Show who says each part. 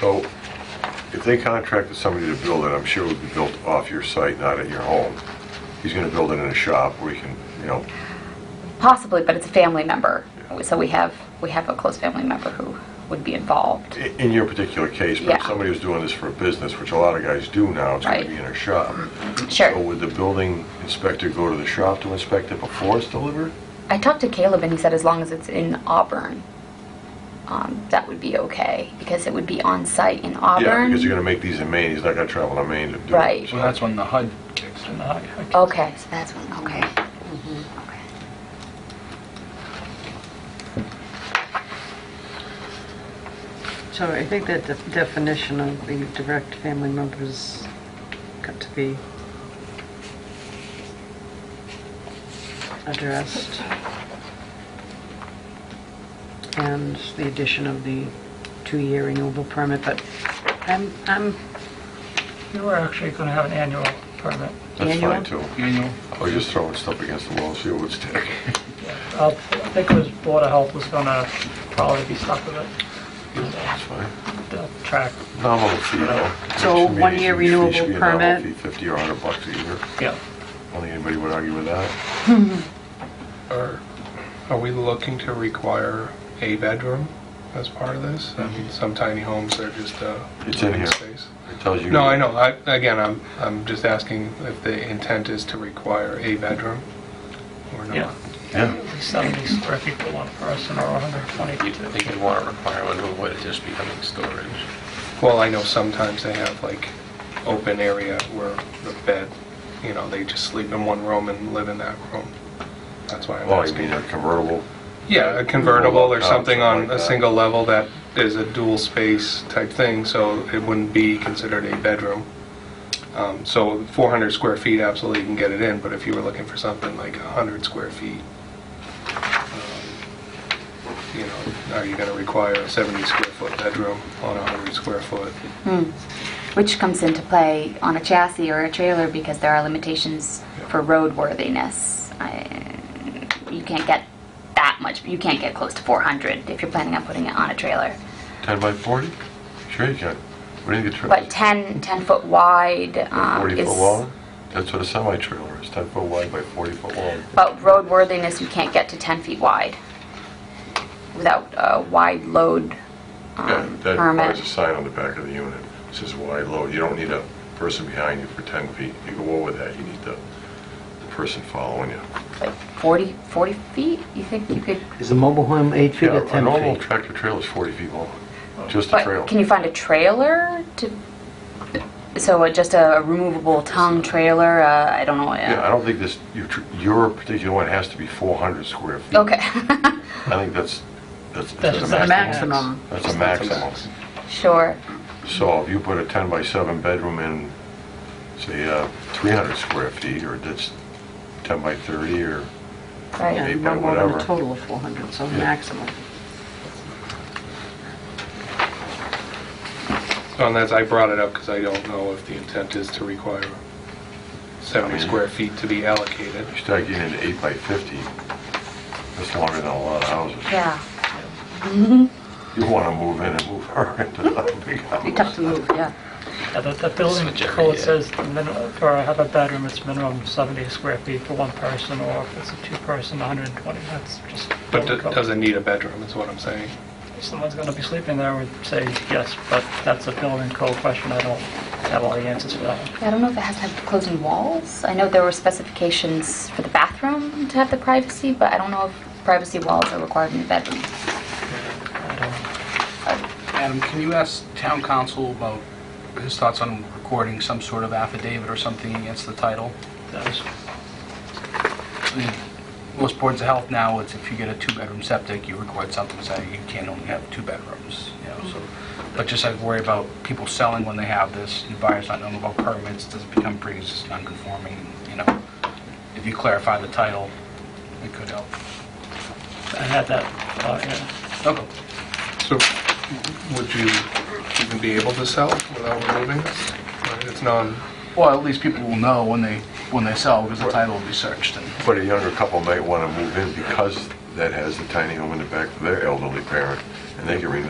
Speaker 1: So if they contracted somebody to build it, I'm sure it would be built off your site, not at your home. He's going to build it in a shop where he can, you know,
Speaker 2: Possibly, but it's a family member. So we have, we have a close family member who would be involved.
Speaker 1: i- in your particular case, but if
Speaker 2: Yeah.
Speaker 1: somebody was doing this for a business, which a lot of guys do now, it's going
Speaker 2: Right.
Speaker 1: to be in a shop. So
Speaker 2: Sure.
Speaker 1: would the building inspector go to the shop to inspect it before it's delivered?
Speaker 2: I talked to Caleb and he said as long as it's in Auburn, um, that would be okay because it would be on site in
Speaker 1: Yeah, because you're
Speaker 2: Auburn.
Speaker 1: going to make these in Maine, he's not going to travel to Maine to do it.
Speaker 2: Right.
Speaker 1: So
Speaker 3: Well, that's when the HUD kicks in. I- I can't-
Speaker 2: Okay, so that's one, okay. Okay.
Speaker 4: So I think that the definition of the direct family members got to be addressed. And the addition of the two-year renewable permit, but I'm, I'm,
Speaker 3: You were actually going to have an annual permit.
Speaker 1: That's
Speaker 4: Annual?
Speaker 1: fine, too.
Speaker 3: Annual.
Speaker 1: I was just throwing stuff against the wall, see what would stick.
Speaker 3: I think it was Board of Health was going to probably be stuck with it,
Speaker 1: That's fine.
Speaker 3: the track.
Speaker 1: Nominal fee, though.
Speaker 4: So,
Speaker 1: Which means
Speaker 4: one-year
Speaker 1: it should be-
Speaker 4: renewable
Speaker 1: should be a nominal
Speaker 4: permit?
Speaker 1: fee, 50 or 100 bucks a year.
Speaker 3: Yeah.
Speaker 1: I don't think anybody would argue with that.
Speaker 5: Are, are we looking to require a bedroom as part of this? I mean, some tiny homes are just uh
Speaker 1: Mm-hmm. It's in
Speaker 5: living
Speaker 1: here.
Speaker 5: space.
Speaker 1: It tells you.
Speaker 5: No, I know, I, again, I'm, I'm just asking if the intent is to require a bedroom or
Speaker 3: Yeah.
Speaker 5: not.
Speaker 1: Yeah.
Speaker 3: At least 70 square feet for one person or 120
Speaker 6: You'd think you'd want a requirement of what it just becoming storage.
Speaker 5: Well, I know sometimes they have like open area where the bed, you know, they just sleep in one room and live in that room. That's why I'm
Speaker 1: Oh, you
Speaker 5: asking.
Speaker 1: mean a convertible?
Speaker 5: Yeah, a convertible or something on
Speaker 1: Oh, Like
Speaker 5: a
Speaker 1: that.
Speaker 5: single level that is a dual space type thing, so it wouldn't be considered a bedroom. Um, So 400 square feet, absolutely you can get it in, but if you were looking for something like 100 square feet, um, you know, are you going to require a 70 square foot bedroom on a 100 square foot?
Speaker 2: Which comes into play on a chassis or a trailer because there are limitations for roadworthiness. I- You can't get that much, you can't get close to 400 if you're planning on putting it on a trailer.
Speaker 1: 10 by 40? Sure you can. What do you think a
Speaker 2: But
Speaker 1: trailer?
Speaker 2: 10, 10-foot wide um,
Speaker 1: 40
Speaker 2: is...
Speaker 1: foot long? That's what a semi-trailer is, 10 foot wide by 40 foot long.
Speaker 2: But roadworthiness, you can't get to 10 feet wide without a wide load
Speaker 1: Yeah,
Speaker 2: um,
Speaker 1: That requires a
Speaker 2: permit.
Speaker 1: sign on the back of the unit, It says wide load. You don't need a person behind you for 10 feet. You go over that, you need the the person following you.
Speaker 2: Like 40, 40 feet? You think you could...
Speaker 7: Is a mobile home eight feet
Speaker 1: Yeah,
Speaker 7: or
Speaker 1: a normal
Speaker 7: 10 feet?
Speaker 1: tractor trailer is 40 feet long, just a trailer.
Speaker 2: But can you find a trailer to, so uh, just a removable tongue trailer, uh, I don't know. uh,
Speaker 1: Yeah, I don't think this, your tr- your particular one has to be 400 square feet.
Speaker 2: Okay,
Speaker 1: I think that's, that's
Speaker 3: That's
Speaker 1: that's
Speaker 4: the
Speaker 1: a maximum.
Speaker 4: maximum.
Speaker 1: That's a maximum.
Speaker 2: sure.
Speaker 1: So if you put a 10 by 7 bedroom in, say, uh, 300 square feet, or that's 10 by 30, or,
Speaker 4: yeah,
Speaker 2: Right.
Speaker 1: Eight by
Speaker 4: not more than a
Speaker 1: whatever.
Speaker 4: total of 400, so
Speaker 1: Yeah.
Speaker 4: maximum.
Speaker 5: So, And that's, I brought it up because I don't know if the intent is to require
Speaker 1: I
Speaker 5: 70
Speaker 1: mean-
Speaker 5: square feet to be allocated.
Speaker 1: you start getting into 8 by 50, that's longer than a lot of houses.
Speaker 2: Yeah,
Speaker 1: You want to move in and move her into the big
Speaker 4: Be
Speaker 1: house.
Speaker 4: tough to move, yeah.
Speaker 3: Yeah, the, the building
Speaker 6: Switch every
Speaker 3: code
Speaker 6: year.
Speaker 3: says the minimum, for a half a bedroom, it's minimum 70 square feet for one person, or if it's a two-person, 120, that's just...
Speaker 5: But
Speaker 3: building
Speaker 5: it
Speaker 3: code.
Speaker 5: doesn't need a bedroom, is what I'm saying.
Speaker 3: Someone's going to be sleeping there, we'd say yes, but that's a building code question, I don't have all the answers for that.
Speaker 2: I don't know if it has to have closing walls. I know there were specifications for the bathroom to have the privacy, but I don't know if privacy walls are required in the bedroom.
Speaker 3: I don't-
Speaker 8: Adam, can you ask town council about his thoughts on recording some sort of affidavit or something against the title?
Speaker 3: that was-
Speaker 8: I mean, Most boards of health now, it's if you get a two-bedroom septic, you record something saying you can only have two bedrooms, you know, so, but just I worry about people selling when they have this, and buyers not knowing about permits, does it become pre-existing non-conforming, you know? If you clarify the title, it could help.
Speaker 3: I had that, thought, yeah.
Speaker 8: Okay.
Speaker 5: So would you even be able to sell without removing this? Right, It's non,
Speaker 8: Well, at least people will know when they, when they sell, because the title will be searched and...
Speaker 1: But a younger couple might want to move in because that has the tiny home in the back for their elderly parent, and they can renew